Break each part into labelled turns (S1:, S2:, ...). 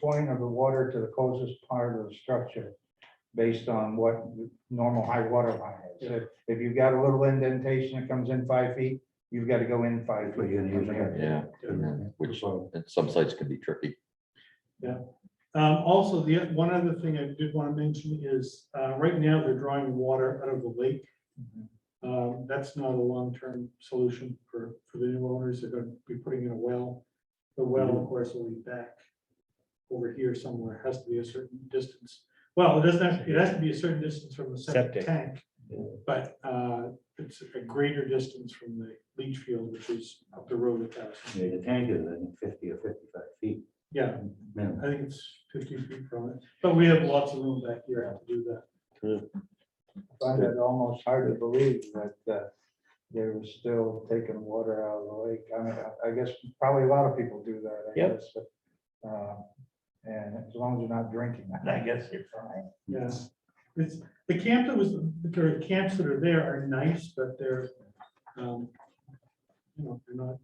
S1: point of the water to the closest part of the structure based on what the normal high water line is. If- If you've got a little indentation that comes in five feet, you've got to go in five
S2: Put
S1: feet.
S2: you in
S1: from
S2: usually.
S1: there.
S3: Yeah, and then- which
S2: So,
S3: and some sites can be tricky.
S4: Um, also, the, one other thing I did want to mention is, uh, right now they're drawing water out of the lake. Um, that's not a long-term solution for, for the new owners. They're gonna be putting in a well. The well, of course, will be back over here somewhere. It Has to be a certain distance. Well, it doesn't have, it has to be a certain distance from the septic
S5: Septic.
S4: tank. But, uh, it's a greater distance from the leach field, which is up the road a thousand.
S2: yeah, The tank is I think, fifty or fifty-five feet.
S4: Yeah,
S2: minimum.
S4: I think it's fifty feet from it, but we have lots of room back here to do that.
S1: I Find it almost hard to believe that uh, they were still taking water out of the lake. I mean, I- I guess probably a lot of people do that, I
S5: Yep.
S1: guess. but, um, And as long as you're not drinking, I guess you're fine.
S4: Yes. It's, the camp that was, the camps that are there are nice, but they're, um, you know, they're not,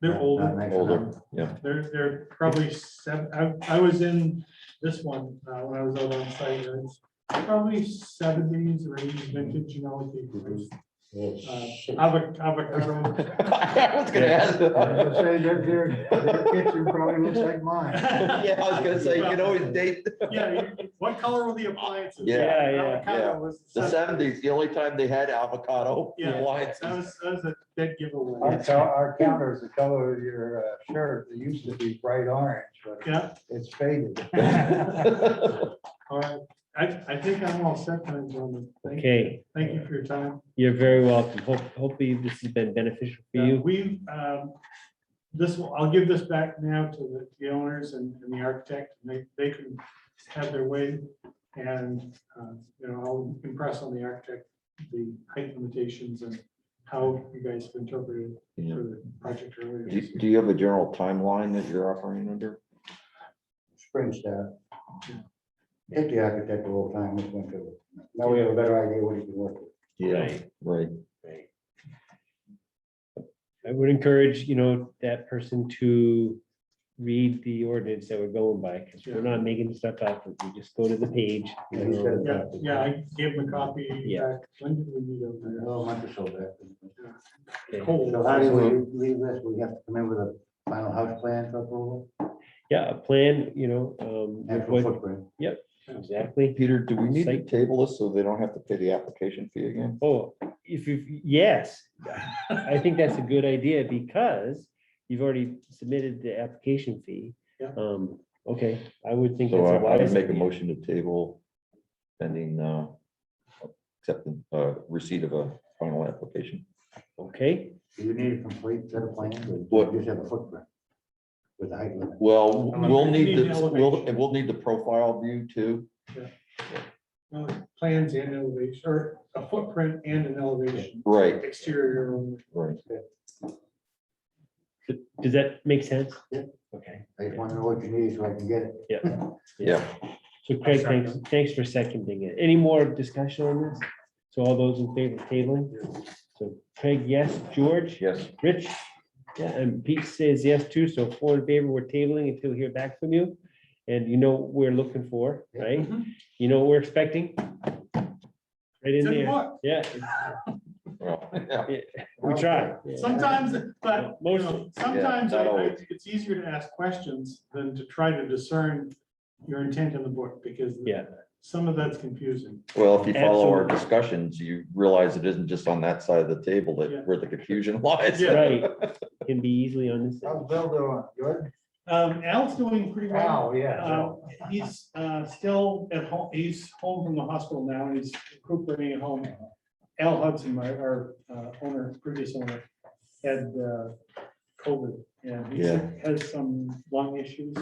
S4: they're
S2: Not
S4: older,
S2: nice
S3: Older,
S2: enough.
S3: yeah.
S4: they're, they're probably seven, I, I was in this one, uh, when I was out on site, and it's probably seventies or eighties vintage, you know, with the, uh, avo- avocado.
S3: I was gonna ask.
S1: I was gonna say, their- their- their Kitchen probably looks like mine.
S3: Yeah, I was gonna say, you can always date
S4: Yeah, you- what color were the appliances?
S3: Yeah.
S5: Yeah, yeah,
S4: Avocado was
S3: the seventies, the only time they had avocado
S4: Yeah. That
S3: appliances.
S4: was, that was a dead giveaway.
S1: Our co- our counter is the color of your uh, shirt. It used to be bright orange, but
S4: Yeah,
S1: it's faded.
S4: all right. I, I think I'm all set, then, gentlemen. Thank-
S5: Okay,
S4: Thank you for your time.
S5: you're very welcome. Hope, hopefully this has been beneficial for
S4: Uh,
S5: you.
S4: We've, um, this, will- I'll give this back now to the- the owners and and the architect. and They, they can have their way. And, uh, you know, I'll impress on the architect, the height limitations and how you guys have interpreted for
S3: Yeah.
S4: the project earlier.
S3: Do do you have a general timeline that you're operating under?
S2: Spring staff. Take the architect a little time, look into it. Now we have a better idea what you can work with.
S5: Right.
S3: Right,
S5: I would encourage, you know, that person to read the ordinance that we're going by, because we're not making stuff up. We just go to the page. you
S2: Yeah, he said it.
S4: Yeah, yeah, I gave him a copy.
S5: Yeah.
S4: back. When did we meet over there?
S2: Oh, a month or so back.
S5: Okay.
S4: Cold.
S2: So how do we leave this? We have to come in with a final house plan for approval,
S5: Yeah, a plan, you know, um, with
S2: actual
S5: what,
S2: footprint.
S5: exactly.
S3: Peter, do we need to
S5: Site-
S3: table this so they don't have to pay the application fee again?
S5: Oh, if you, yes, I think that's a good idea because you've already submitted the application fee.
S4: Yeah.
S5: Um, okay, I would think
S3: So
S5: that's a
S3: I I would
S5: wise.
S3: make a
S5: idea.
S3: motion to table pending uh acceptance, uh receipt of a final application.
S5: Okay,
S2: Do you need a complete set of plans or
S3: What?
S2: do you just have a footprint? With the height limit?
S3: Well, we'll need,
S4: Need
S3: the- we'll,
S4: elevation.
S3: and we'll need the profile view too.
S4: No, Plans and elevation, or a footprint and an elevation,
S3: Right,
S4: exterior. only.
S3: right.
S5: Th- does that make sense?
S2: Yeah.
S5: Okay,
S2: I just want to know what you need so I can get it.
S5: yeah.
S3: Yeah.
S5: So Craig, thanks, thanks for seconding it. Any more discussion on this? So all those in favor of tabling? So Craig, yes, George?
S3: Yes.
S5: Rich? Yeah, and Pete says yes too, so four in favor, we're tabling until we hear back from you. And you know what we're looking for, right?
S4: Mm-hmm.
S5: You know what we're expecting? Right in
S4: It's in the
S5: there,
S4: book.
S5: yeah,
S3: Well, yeah.
S5: we try.
S4: Sometimes, but, you know,
S5: Mostly.
S4: sometimes
S3: Yeah,
S4: I-
S3: not
S4: I-
S3: always.
S4: it's easier to ask questions than to try to discern your intent in the book, because
S5: Yeah.
S4: some of that's confusing.
S3: Well, if you follow our
S5: Absolutely.
S3: discussions, you realize it isn't just on that side of the table
S4: Yeah.
S3: that where the confusion lies.
S4: Yeah.
S5: Right, can be easily on this.
S1: How's Bill doing? Good?
S4: Um, Al's doing pretty well.
S1: Wow, yeah.
S4: Uh, He's uh, still at home, he's home from the hospital now, and he's recuperating at home. Al Hudson, my, our uh, owner, previous owner, had uh, COVID, and he
S3: Yeah.
S4: has some lung issues.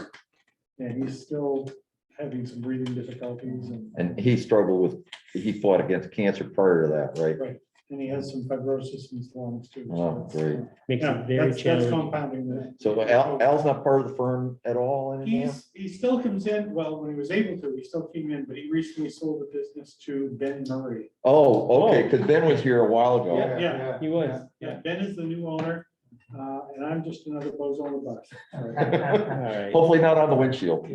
S4: And he's still having some breathing difficulties, and,
S3: And he struggled with, he fought against cancer prior to that, right?
S4: and he has some fibrosis in his lungs too. so
S3: Oh,
S4: that's-
S3: great.
S5: Makes
S4: Yeah,
S5: it very
S4: that's, that's
S5: challenging.
S4: compounding that.
S3: So Al, Al's not part of the firm at all anymore?
S4: He's, he still comes in, well, when he was able to, he still came in, but he recently sold the business to Ben Murray.
S3: Oh, okay,
S5: Oh.
S3: because Ben was here a while ago.
S4: Yeah,
S5: He was.
S4: Yeah, Ben is the new owner, uh, and I'm just another bozo on the bus.
S1: yeah.
S5: All right.
S3: Hopefully not on the windshield.